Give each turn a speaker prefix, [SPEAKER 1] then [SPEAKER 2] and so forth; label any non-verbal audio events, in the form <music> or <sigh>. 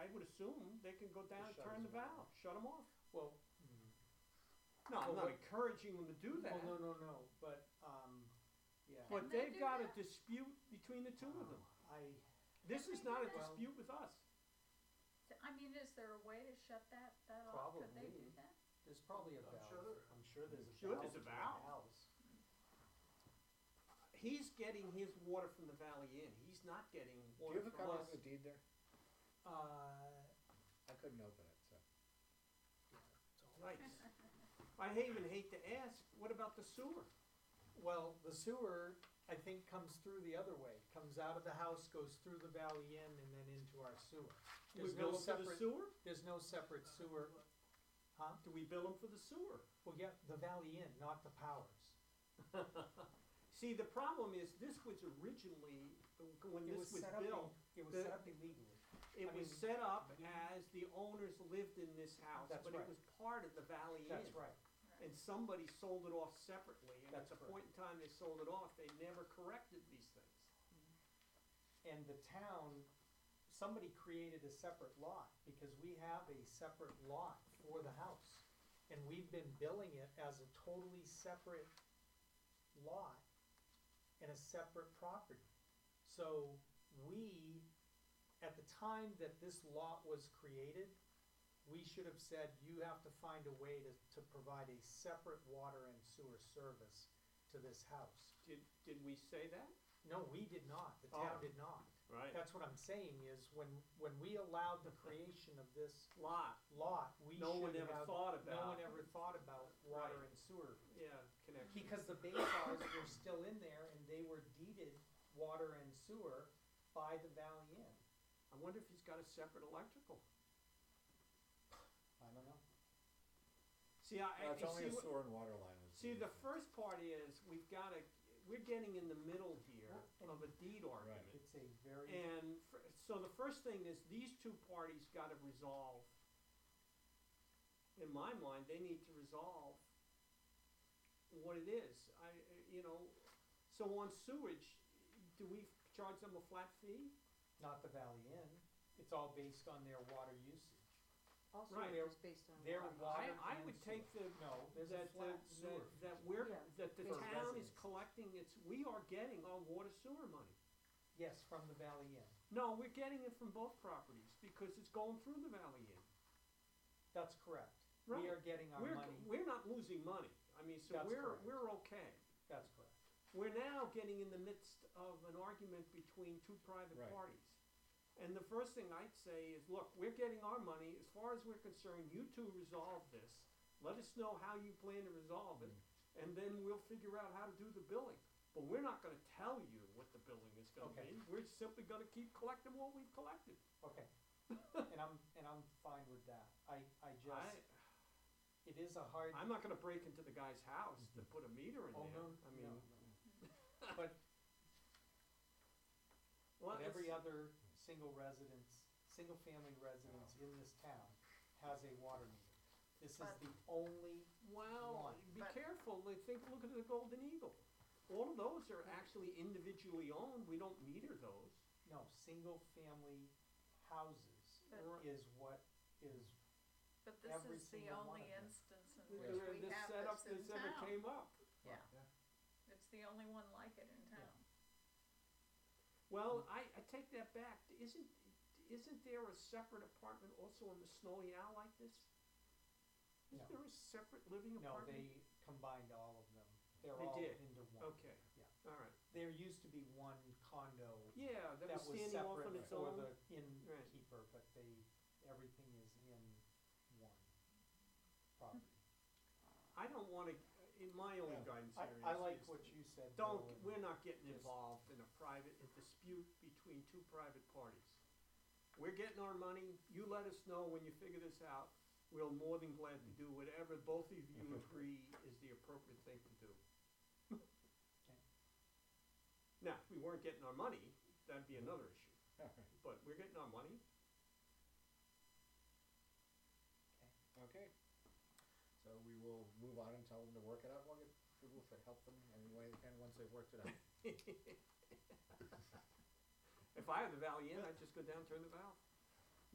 [SPEAKER 1] soon, they can go down,
[SPEAKER 2] Just shut
[SPEAKER 1] turn the
[SPEAKER 2] his mouth.
[SPEAKER 1] valve, shut them off.
[SPEAKER 2] Well,
[SPEAKER 1] No, I'm
[SPEAKER 2] Well,
[SPEAKER 1] not
[SPEAKER 2] what-
[SPEAKER 1] encouraging them to do that.
[SPEAKER 2] well, Oh, no, no, no, but, um, yeah.
[SPEAKER 1] But
[SPEAKER 3] Can they
[SPEAKER 1] they've
[SPEAKER 3] do
[SPEAKER 1] got a
[SPEAKER 3] that?
[SPEAKER 1] dispute between the two of them.
[SPEAKER 2] I,
[SPEAKER 1] This
[SPEAKER 3] Can
[SPEAKER 1] is
[SPEAKER 3] they
[SPEAKER 1] not
[SPEAKER 3] do
[SPEAKER 1] a
[SPEAKER 3] that?
[SPEAKER 1] dispute with us.
[SPEAKER 3] So, I mean, is there a way to shut that, that off? Could they do
[SPEAKER 2] Probably.
[SPEAKER 3] that?
[SPEAKER 2] there's probably a
[SPEAKER 4] I'm
[SPEAKER 2] valve.
[SPEAKER 4] sure there-
[SPEAKER 2] I'm sure there's a valve.
[SPEAKER 1] Sure there's a
[SPEAKER 2] to the
[SPEAKER 1] valve.
[SPEAKER 2] house.
[SPEAKER 1] He's getting his water from the Valley Inn. He's not getting
[SPEAKER 4] Do you
[SPEAKER 1] water
[SPEAKER 4] have a
[SPEAKER 1] from
[SPEAKER 4] copy
[SPEAKER 1] us.
[SPEAKER 4] of the deed there?
[SPEAKER 2] Uh,
[SPEAKER 4] I couldn't open it, so.
[SPEAKER 3] <laughs>
[SPEAKER 1] Nice. <laughs> I even hate to ask, what about the sewer?
[SPEAKER 2] Well, the sewer, I think, comes through the other way, comes out of the house, goes through the Valley Inn and then into our sewer.
[SPEAKER 1] Do we
[SPEAKER 2] There's no
[SPEAKER 1] bill 'em for the
[SPEAKER 2] separate,
[SPEAKER 1] sewer?
[SPEAKER 2] there's no separate sewer, huh?
[SPEAKER 1] Do we bill them for the sewer? <laughs>
[SPEAKER 2] Well, yeah, the Valley Inn, not the Powers.
[SPEAKER 1] See, the problem is, this was originally, when
[SPEAKER 2] It
[SPEAKER 1] this
[SPEAKER 2] was
[SPEAKER 1] was
[SPEAKER 2] set up,
[SPEAKER 1] built,
[SPEAKER 2] ill- it was
[SPEAKER 1] the-
[SPEAKER 2] set up illegally.
[SPEAKER 1] it
[SPEAKER 2] I
[SPEAKER 1] was
[SPEAKER 2] mean-
[SPEAKER 1] set up as the owners lived in this house,
[SPEAKER 2] That's
[SPEAKER 1] but it
[SPEAKER 2] right.
[SPEAKER 1] was part of the Valley Inn.
[SPEAKER 2] That's right.
[SPEAKER 1] and somebody sold it off separately, and at
[SPEAKER 2] That's
[SPEAKER 1] the point
[SPEAKER 2] correct.
[SPEAKER 1] in time they sold it off, they never corrected these things.
[SPEAKER 2] And the town, somebody created a separate lot, because we have a separate lot for the house. And we've been billing it as a totally separate lot and a separate property. So we, at the time that this lot was created, we should have said, you have to find a way to, to provide a separate water and sewer service to this house.
[SPEAKER 1] Did, did we say that?
[SPEAKER 2] No, we did not, the
[SPEAKER 1] Oh.
[SPEAKER 2] town did not.
[SPEAKER 1] Right.
[SPEAKER 2] That's what I'm saying is when, when we allowed the creation of this
[SPEAKER 1] Lot,
[SPEAKER 2] lot, we should
[SPEAKER 1] no one
[SPEAKER 2] have.
[SPEAKER 1] ever thought
[SPEAKER 2] No one
[SPEAKER 1] about,
[SPEAKER 2] ever thought about water
[SPEAKER 1] Right.
[SPEAKER 2] and sewer.
[SPEAKER 1] yeah, connection.
[SPEAKER 2] Because the Bayshaws were still in there and they were deeded water and sewer by the Valley Inn.
[SPEAKER 1] I wonder if he's got a separate electrical.
[SPEAKER 2] I don't know.
[SPEAKER 1] See, I, I,
[SPEAKER 4] No, it's
[SPEAKER 1] you
[SPEAKER 4] only
[SPEAKER 1] see,
[SPEAKER 4] a
[SPEAKER 1] what-
[SPEAKER 4] sewer and water line. is
[SPEAKER 1] see, the
[SPEAKER 4] deed.
[SPEAKER 1] first part is, we've gotta, we're getting in the middle here of a deed argument.
[SPEAKER 2] It's a very,
[SPEAKER 1] And fir- so the first thing is, these two parties gotta resolve, in my mind, they need to resolve what it is. I, you know, so on sewage, do we charge them a flat fee?
[SPEAKER 2] not the Valley Inn, it's all based on their water usage.
[SPEAKER 5] Also,
[SPEAKER 1] Right.
[SPEAKER 5] it was based on.
[SPEAKER 2] Their
[SPEAKER 5] what-
[SPEAKER 1] I,
[SPEAKER 2] water
[SPEAKER 1] I
[SPEAKER 2] and
[SPEAKER 1] would
[SPEAKER 2] sewer.
[SPEAKER 1] take the,
[SPEAKER 2] No,
[SPEAKER 1] that,
[SPEAKER 2] there's a
[SPEAKER 1] that,
[SPEAKER 2] flat sewer.
[SPEAKER 1] that- that we're,
[SPEAKER 5] Yeah.
[SPEAKER 1] that the
[SPEAKER 2] For
[SPEAKER 1] town is
[SPEAKER 2] residents.
[SPEAKER 1] collecting its, we are getting our water sewer money.
[SPEAKER 2] Yes, from the Valley Inn.
[SPEAKER 1] No, we're getting it from both properties, because it's going through the Valley Inn.
[SPEAKER 2] That's correct.
[SPEAKER 1] Right.
[SPEAKER 2] We are getting our
[SPEAKER 1] We're,
[SPEAKER 2] money.
[SPEAKER 1] we're not losing money, I mean, so
[SPEAKER 2] That's
[SPEAKER 1] we're,
[SPEAKER 2] correct.
[SPEAKER 1] we're okay.
[SPEAKER 2] That's correct.
[SPEAKER 1] We're now getting in the midst of an argument between two private
[SPEAKER 4] Right.
[SPEAKER 1] parties. And the first thing I'd say is, look, we're getting our money, as far as we're concerned, you two resolve this. Let us know how you plan to resolve it, and then we'll figure out how to do the billing. But we're not gonna tell you what the billing is gonna
[SPEAKER 2] Okay.
[SPEAKER 1] be, we're simply gonna keep collecting what we've collected.
[SPEAKER 2] Okay. And I'm, and I'm fine with that. I, I just,
[SPEAKER 1] I,
[SPEAKER 2] it is a hard,
[SPEAKER 1] I'm not gonna break into the guy's house to put a meter in
[SPEAKER 2] oh,
[SPEAKER 1] there,
[SPEAKER 2] no,
[SPEAKER 1] I mean.
[SPEAKER 2] no, no. But,
[SPEAKER 1] well,
[SPEAKER 2] but
[SPEAKER 1] it's-
[SPEAKER 2] every other single residence, single-family residence in this town has a water meter. This is
[SPEAKER 3] But-
[SPEAKER 2] the only,
[SPEAKER 1] Well,
[SPEAKER 2] One.
[SPEAKER 1] be
[SPEAKER 3] But-
[SPEAKER 1] careful, Like, think, look at the Golden Eagle. All of those are actually individually owned, we don't meter those.
[SPEAKER 2] no, single-family houses
[SPEAKER 3] But-
[SPEAKER 1] Or-
[SPEAKER 2] is what is,
[SPEAKER 3] But this
[SPEAKER 2] Every
[SPEAKER 3] is the
[SPEAKER 2] single one
[SPEAKER 3] only
[SPEAKER 2] of them.
[SPEAKER 3] instance in
[SPEAKER 1] the-
[SPEAKER 3] which
[SPEAKER 1] the-
[SPEAKER 3] we
[SPEAKER 1] this
[SPEAKER 3] have
[SPEAKER 1] setup
[SPEAKER 3] this in
[SPEAKER 1] that's ever
[SPEAKER 3] town.
[SPEAKER 1] came up.
[SPEAKER 3] Yeah.
[SPEAKER 4] Yeah.
[SPEAKER 3] It's the only one like it in town.
[SPEAKER 1] Well, I, I take that back, isn't, isn't there a separate apartment also in the Snowy Owl like this? Isn't
[SPEAKER 2] No.
[SPEAKER 1] there a separate living
[SPEAKER 2] no,
[SPEAKER 1] apartment?
[SPEAKER 2] they combined all of them. They're
[SPEAKER 1] They
[SPEAKER 2] all
[SPEAKER 1] did.
[SPEAKER 2] into one.
[SPEAKER 1] Okay,
[SPEAKER 2] Yeah.
[SPEAKER 1] alright,
[SPEAKER 2] There used to be one condo
[SPEAKER 1] yeah, that
[SPEAKER 2] that
[SPEAKER 1] was
[SPEAKER 2] was
[SPEAKER 1] standing off on
[SPEAKER 2] separate
[SPEAKER 1] its
[SPEAKER 2] for
[SPEAKER 1] own,
[SPEAKER 2] the
[SPEAKER 1] Right.
[SPEAKER 2] innkeeper, but they, everything is in one property.
[SPEAKER 1] I don't wanna, in my only
[SPEAKER 4] Yeah.
[SPEAKER 1] guidance
[SPEAKER 2] I,
[SPEAKER 1] area
[SPEAKER 2] I
[SPEAKER 1] is-
[SPEAKER 2] like
[SPEAKER 1] is
[SPEAKER 2] what you said,
[SPEAKER 1] Don't,
[SPEAKER 2] Bill, and-
[SPEAKER 1] we're not getting
[SPEAKER 2] just-
[SPEAKER 1] involved in a private, a dispute between two private parties. We're getting our money, you let us know when you figure this out, we're more than glad to do whatever both of you agree is the appropriate thing to do. Now, if we weren't getting our money, that'd be another issue, but we're getting our money,
[SPEAKER 4] <laughs>
[SPEAKER 1] <laughs>
[SPEAKER 4] Okay. So we will move on and tell them to work it out. We'll get, we'll f- help them any way they can once they've worked it out.
[SPEAKER 1] If I had the Valley Inn, I'd just go down, turn the valve.